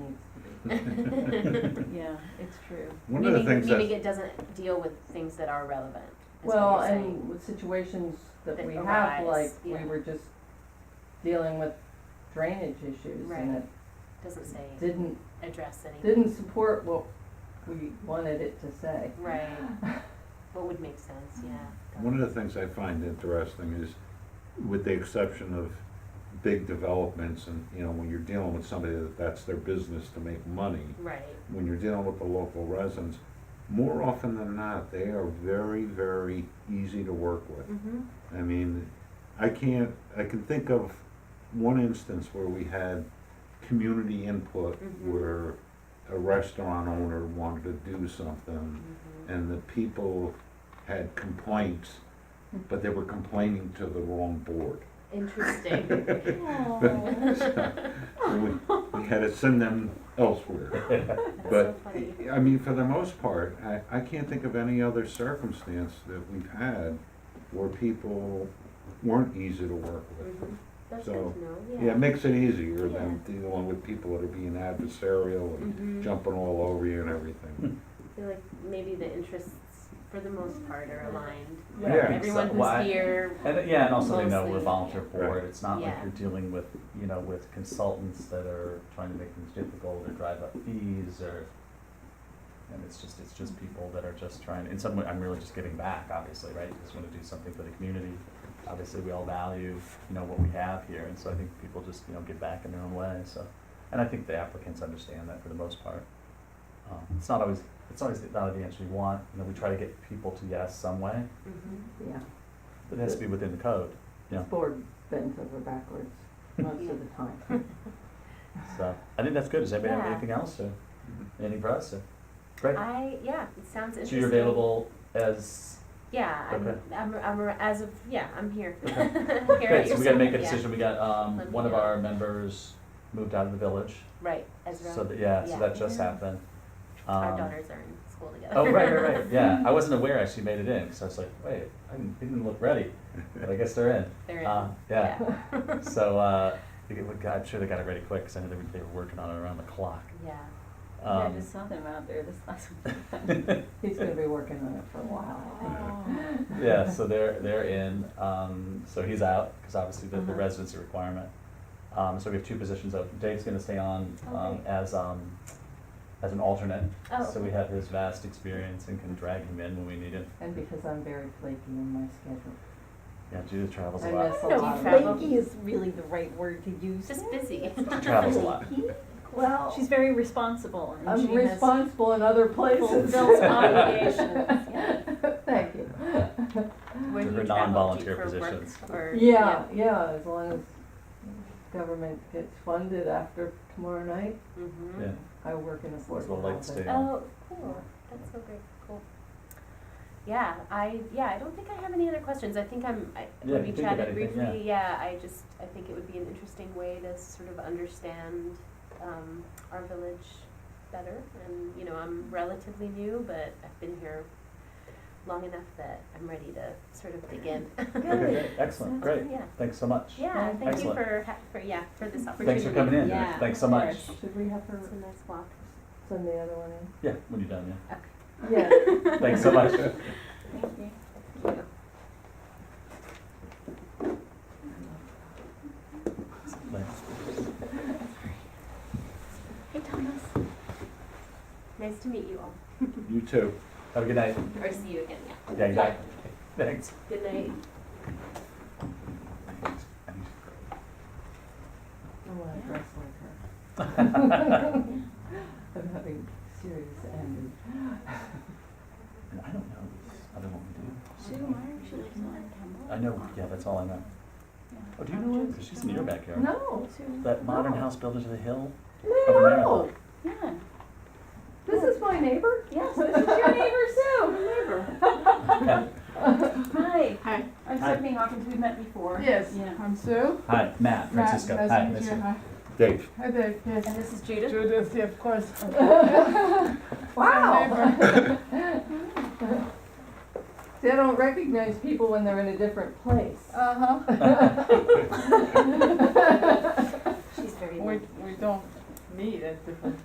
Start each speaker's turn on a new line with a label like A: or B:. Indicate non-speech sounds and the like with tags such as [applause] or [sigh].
A: [laughs]
B: Yeah, it's true.
C: One of the
D: Meaning-
C: things
D: Meaning
C: that,
D: it doesn't deal with things that are relevant, is what
A: Well,
D: you're saying.
A: and with situations that
D: That
A: we have,
D: arise,
A: like, we
D: yeah.
A: were just dealing with drainage issues and
D: Right.
A: it
D: Doesn't say,
A: didn't,
D: address anything,
A: didn't support what we wanted it to say.
D: right, what would make sense, yeah.
C: one of the things I find interesting is, with the exception of big developments and, you know, when you're dealing with somebody that that's their business to make money,
D: Right,
C: when you're dealing with the local residents, more often than not, they are very, very easy to work with.
D: mm-hmm,
C: I mean, I can't, I can think of one instance where we had community input
D: Mhm.
C: where a restaurant owner wanted to do something
D: mm-hmm,
C: and the people had complaints, but they were complaining to the wrong board. [laughs]
D: interesting,
C: We, we had to send them elsewhere.
D: that's so
C: But,
D: funny,
C: I mean, for the most part, I, I can't think of any other circumstance that we've had where people weren't easy to work with.
D: mm-hmm, that's
C: So,
D: good to know, yeah.
C: Yeah, it makes it easier than dealing with people that are being adversarial and
D: Mm-hmm, I
C: jumping all over you and everything.
D: feel like maybe the interests, for the most part, are aligned,
C: Yeah. Yeah.
D: everyone
E: Why-
D: who's here,
E: And uh, yeah, and also they know we're
D: Mostly,
E: volunteer
D: yeah.
E: for it. It's not like
D: Yeah.
E: you're dealing with, you know, with consultants that are trying to make things difficult or drive up fees or. And it's just, it's just people that are just trying, in some way, I'm really just giving back, obviously, right? Just wanna do something for the community. Obviously, we all value, you know, what we have here, and so I think people just, you know, give back in their own way, so. And I think the applicants understand that for the most part. Um, it's not always, it's always not the answer you want, you know, we try to get people to yes some way,
D: mm-hmm.
A: Yeah,
E: but it has to be within the code. Yeah.
A: this board bends over backwards most of the time. [laughs]
E: So I think that's good. Does anybody have
D: Yeah.
E: anything else or any press? Or? Great.
D: I, yeah, it sounds interesting.
E: so you're available as
D: Yeah, I'm,
E: Okay.
D: I'm, I'm, as of, yeah, I'm [laughs] here.
E: Okay.
D: Here at
E: great. So
D: your
E: we got to make a
D: service, yeah.
E: decision. We got
D: Let
E: um,
D: me
E: one of
D: know.
E: our members moved out of the village.
D: Right, Ezra,
E: So that, yeah,
D: Yeah.
E: so that just
B: Yeah.
E: happened. Um,
D: our daughters are in school together.
E: Oh right,
D: [laughs]
E: right, right. Yeah, I wasn't aware I actually made it in because I was like, wait, I didn't, they didn't look ready, but I guess they're in.
D: They're in,
E: Uh, yeah.
D: yeah. [laughs]
E: so uh, they get- I'm sure they got it ready quick because I know they were, they were working on it around the clock.
D: Yeah,
B: Yeah, I
E: Um,
B: just saw them out there this last week.
E: [laughs]
D: [laughs]
A: He's gonna be working on it for a while, I think.
E: Yeah, so they're, they're in, um, so he's out, because obviously the, the
B: Uh-huh.
E: residency requirement. Um, so we have two positions open, Dave's gonna stay on, um,
D: Okay.
E: as, um, as an alternate.
D: Oh,
E: So we have his vast experience and can drag him in when we need him.
A: And because I'm very flaky in my schedule.
E: Yeah, Judith travels a
A: I
E: lot,
A: miss a
D: No,
A: lot
D: you
A: of
D: travel.
F: Flaky is really the right word to use.
D: just busy. [laughs]
E: she travels a lot.
A: Well,
B: She's very responsible and
A: I'm
B: she has
A: responsible in other places.
B: fulfills
A: [laughs]
B: obligations, yeah.
A: Thank you.
D: Where do
E: Her
D: you travel to
E: non-volunteer
D: for work
E: positions.
D: or?
A: Yeah, yeah, as long as government gets funded after tomorrow night,
D: Mm-hmm.
E: yeah,
A: I work in affordable housing.
E: as well lights stay on.
D: Oh, cool, that's so great, cool. Yeah, I, yeah, I don't think I have any other questions, I think I'm, I,
E: Yeah,
D: when
E: if
D: we
E: you think of
D: chatted
E: anything,
D: briefly, yeah, I just, I think it would be an interesting way to sort of understand, um, our village better, and, you know, I'm relatively new, but I've been here long enough that I'm ready to sort of dig in.
E: Okay, great, excellent,
D: Sounds
E: great,
D: good, yeah.
E: thanks so much.
D: Yeah, thank you
E: Excellent.
D: for, ha- for, yeah, for this opportunity.
E: Thanks for coming in,
B: Yeah,
E: thanks so
B: of
E: much.
B: course.
A: Should we have her
D: It's a nice walk,
A: send the other one
E: [laughs]
A: in?
E: Yeah, when you're done,
D: okay,
A: Yeah,
E: yeah, thanks so much.
B: Thank you.
D: thank you. Hey, Thomas. Nice to meet you all,
C: You too.
E: Have a good night.
D: or see you again, yeah.
E: Yeah, exactly. Thanks.
D: Good night.
A: I wanna dress like her.
E: [laughs] and
A: I'm having serious envy.
E: I don't know this other one we
B: Sue Meyer, she lives on
E: do. I know, yeah, that's all I know. Oh, do you know her? Because she's in your backyard.
A: No,
E: That modern
A: No.
E: house built into the hill. Over there.
A: no,
B: Yeah,
A: this is my neighbor.
B: yes, this is your neighbor Sue.
E: [laughs]
B: Hi.
G: Hi.
B: I'm
E: Hi.
B: Stephanie Hawkins, we've met before.
G: Yes.
B: Yeah.
G: I'm Sue.
E: Hi, Matt, Francisco.
G: Matt,
E: Hi,
G: nice to meet you.
E: Mr.
G: Hi.
C: Dave,
G: Hi there. Yes.
D: And this is Judith.
G: Judith, yeah, of course.
E: [laughs]
A: Wow. [laughs] They don't recognize people when they're in a different place.
G: Uh huh.
D: She's very
G: We we don't meet at different